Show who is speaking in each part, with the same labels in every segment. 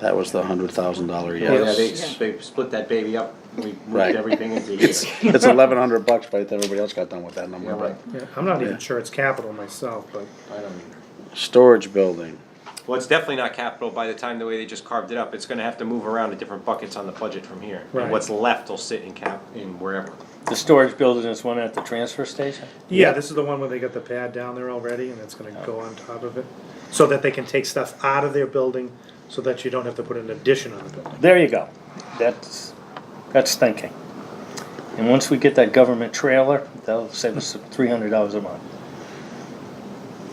Speaker 1: That was the hundred thousand dollar
Speaker 2: Yeah,
Speaker 1: yes.
Speaker 2: they, they split that baby up, we
Speaker 1: Right.
Speaker 2: moved everything into here.
Speaker 1: It's eleven hundred bucks by the time everybody else got done with that
Speaker 2: Yeah,
Speaker 1: number,
Speaker 2: right,
Speaker 1: but.
Speaker 3: Yeah, I'm not even sure it's capital myself, but
Speaker 2: I don't either.
Speaker 1: Storage building,
Speaker 2: Well, it's definitely not capital by the time the way they just carved it up, it's gonna have to move around to different buckets on the budget from here. And
Speaker 3: Right.
Speaker 2: what's left will sit in cap, in wherever.
Speaker 4: The storage building is one at the transfer station?
Speaker 3: yeah, this is the one where they got the pad down there already and it's gonna go on top of it. So that they can take stuff out of their building, so that you don't have to put an addition on the building.
Speaker 4: There you go. That's, that's thinking. And once we get that government trailer, that'll save us three hundred dollars a month.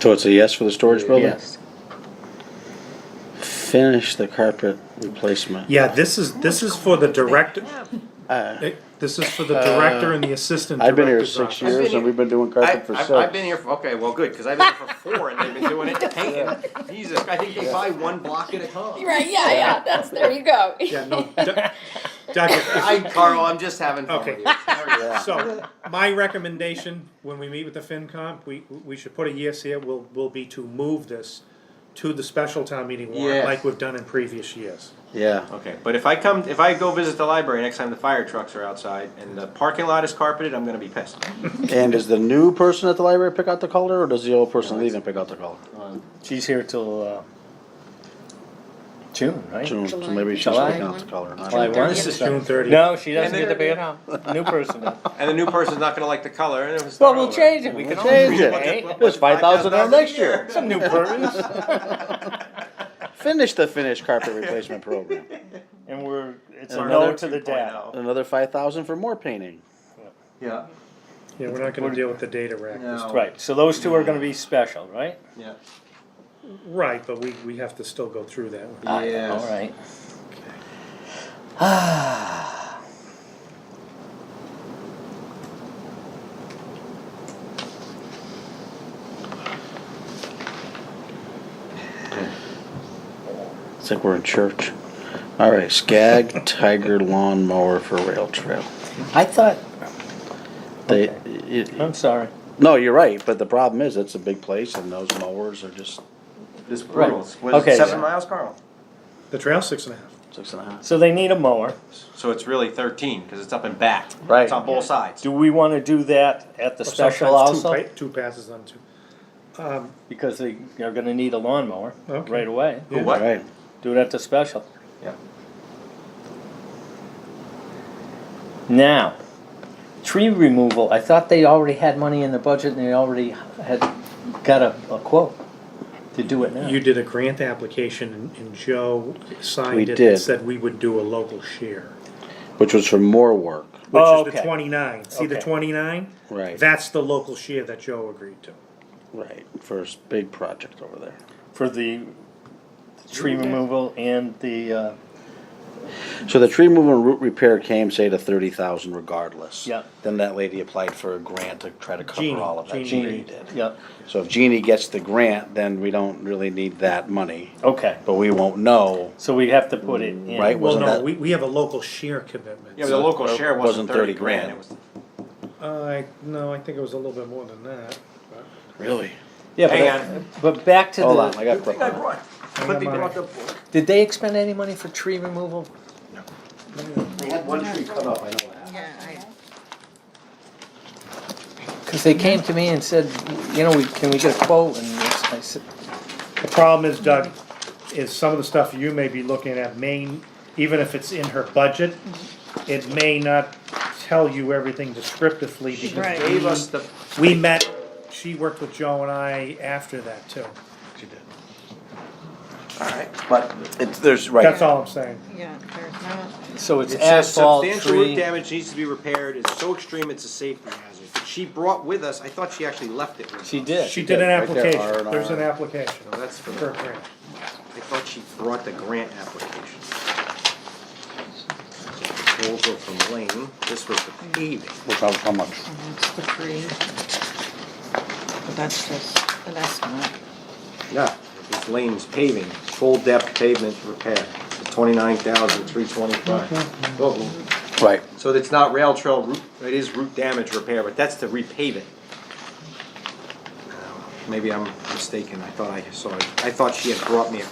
Speaker 1: so it's a yes for the storage building?
Speaker 4: Yes.
Speaker 1: Finish the carpet replacement.
Speaker 3: Yeah, this is, this is for the director,
Speaker 1: Uh,
Speaker 3: this is for the director and the assistant
Speaker 1: I've been here
Speaker 3: director's
Speaker 1: six
Speaker 3: office.
Speaker 5: been
Speaker 1: years and
Speaker 5: here-
Speaker 1: we've been doing
Speaker 2: I,
Speaker 1: carpet for
Speaker 2: I've, I've
Speaker 1: six.
Speaker 2: been here, for okay, well, good, cause I've been here for four and they've been doing it to paint. Jesus, I think they buy one block at a time.
Speaker 5: Right, yeah, yeah, that's, there you go.
Speaker 3: Yeah, no, doc- Doctor,
Speaker 2: I, Carl, I'm just having fun
Speaker 3: Okay.
Speaker 2: with you. Sorry.
Speaker 3: so, my recommendation, when we meet with the FinCom, we, we should put a yes here, will, will be to move this to the special town meeting warrant,
Speaker 2: Yes.
Speaker 3: like we've done in previous years.
Speaker 1: Yeah,
Speaker 2: Okay, but if I come, if I go visit the library next time the fire trucks are outside and the parking lot is carpeted, I'm gonna be pissed.
Speaker 1: and does the new person at the library pick out the color or does the old person leave and pick out the color?
Speaker 4: She's here till, uh, June, right?
Speaker 1: June, so maybe she's
Speaker 4: July.
Speaker 1: picking out the color. not
Speaker 4: July
Speaker 1: me.
Speaker 4: one?
Speaker 3: This is June thirtieth.
Speaker 4: No, she doesn't
Speaker 2: And
Speaker 4: get to pay
Speaker 2: they're-
Speaker 4: it out. New person. then.
Speaker 2: And the new person's not gonna like the color and it was.
Speaker 4: Well, we'll change it. We can always
Speaker 1: Change it.
Speaker 4: change it.
Speaker 1: There's five thousand on next year.
Speaker 4: Some new persons.
Speaker 1: Finish the finished carpet replacement program.
Speaker 4: And we're, it's a
Speaker 2: Another
Speaker 4: no oh. to the dad.
Speaker 2: 2.0.
Speaker 1: Another five thousand for more painting.
Speaker 2: Yeah,
Speaker 3: Yeah, we're not gonna deal with the data rack.
Speaker 2: no.
Speaker 4: Right, so those two are gonna be special, right?
Speaker 2: Yeah.
Speaker 3: Right, but we, we have to still go through that one.
Speaker 2: Yes.
Speaker 4: Alright.
Speaker 1: It's like we're in church. All right, Skag Tiger Lawn Mower for Rail Trail.
Speaker 4: I thought,
Speaker 1: They, it-
Speaker 4: I'm sorry.
Speaker 1: no, you're right, but the problem is it's a big place and those mowers are just
Speaker 2: This rules. Was
Speaker 4: Okay.
Speaker 2: it seven miles, Carl?
Speaker 3: The trail six and a half.
Speaker 1: six and a half.
Speaker 4: So they need a mower.
Speaker 2: So it's really thirteen, cause it's up and back.
Speaker 1: Right.
Speaker 2: It's on both sides.
Speaker 4: Do we wanna do that at the
Speaker 3: Or
Speaker 4: special
Speaker 3: sometimes two
Speaker 4: also?
Speaker 3: pa- Two passes on two.
Speaker 4: Because they are gonna need a lawnmower
Speaker 3: Okay.
Speaker 4: right away.
Speaker 2: Who,
Speaker 1: All
Speaker 2: what?
Speaker 1: right,
Speaker 4: Do it at the special.
Speaker 2: Yeah.
Speaker 4: Now, tree removal, I thought they already had money in the budget and they already had got a, a quote to do it now.
Speaker 3: You did a grant application and- and Joe
Speaker 1: We
Speaker 3: signed it
Speaker 1: did.
Speaker 3: and said we would do a local share.
Speaker 1: which was for more work.
Speaker 3: Which
Speaker 4: Oh,
Speaker 3: is the
Speaker 4: okay.
Speaker 3: twenty-nine. See the
Speaker 4: Okay.
Speaker 3: twenty-nine?
Speaker 1: Right.
Speaker 3: That's the local share that Joe agreed to.
Speaker 1: Right, first big project over there.
Speaker 4: For the tree removal and the, uh,
Speaker 1: So the tree removal and root repair came, say, to thirty thousand regardless.
Speaker 4: Yep.
Speaker 1: Then that lady applied for a grant to try to
Speaker 3: Jeannie,
Speaker 1: cover all of that.
Speaker 3: Jeannie.
Speaker 1: Jeannie did.
Speaker 4: yeah,
Speaker 1: So if Jeannie gets the grant, then we don't really need that money,
Speaker 4: okay.
Speaker 1: but we won't know.
Speaker 4: So we have to put it in.
Speaker 1: Right,
Speaker 3: Well,
Speaker 1: Wasn't
Speaker 3: no,
Speaker 1: that-
Speaker 3: we, we have a local share commitment.
Speaker 2: Yeah, but the local share wasn't thirty grand, it was.
Speaker 3: uh, I, no, I think it was a little bit more than that.
Speaker 1: Really?
Speaker 4: Yeah, but,
Speaker 2: Hang
Speaker 4: but back to
Speaker 1: Hold
Speaker 4: the.
Speaker 1: on, I got Brooklyn.
Speaker 2: brought.
Speaker 3: Flippy brought the
Speaker 4: Did they expend any money for tree removal?
Speaker 2: They had one tree cut off, I know that.
Speaker 4: Because they came to me and said, you know, we, can we get a quote? And it's- I said,
Speaker 3: The problem is Doug, is some of the stuff you may be looking at may, even if it's in her budget, it may not tell you everything descriptively because
Speaker 2: Gave us the,
Speaker 3: we met, she worked with Joe and I after that too.
Speaker 2: alright.
Speaker 1: But it's, there's, right.
Speaker 3: That's all I'm saying.
Speaker 5: Yeah, there's not.
Speaker 4: so it's
Speaker 2: It says
Speaker 4: asphalt,
Speaker 2: substantial root
Speaker 4: tree.
Speaker 2: damage needs to be repaired, it's so extreme it's a safety hazard. She brought with us, I thought she actually left it with us.
Speaker 4: She did.
Speaker 3: She did an
Speaker 1: Right there,
Speaker 3: application,
Speaker 1: R Oh, and R.
Speaker 3: there's an application
Speaker 2: No, that's for
Speaker 3: for a
Speaker 2: the,
Speaker 3: grant.
Speaker 2: I thought she brought the grant application. So We'll go from lane, this was the paving.
Speaker 1: Which, how, how much?
Speaker 5: And that's the three. But that's just an estimate.
Speaker 2: Yeah. It's lanes paving, full depth pavement repair, twenty-nine thousand, three twenty-five.
Speaker 1: Right.
Speaker 2: So it's not rail trail root, it is root damage repair, but that's to repave it. Uh, Maybe I'm mistaken, I thought I saw, it. I thought she had brought me a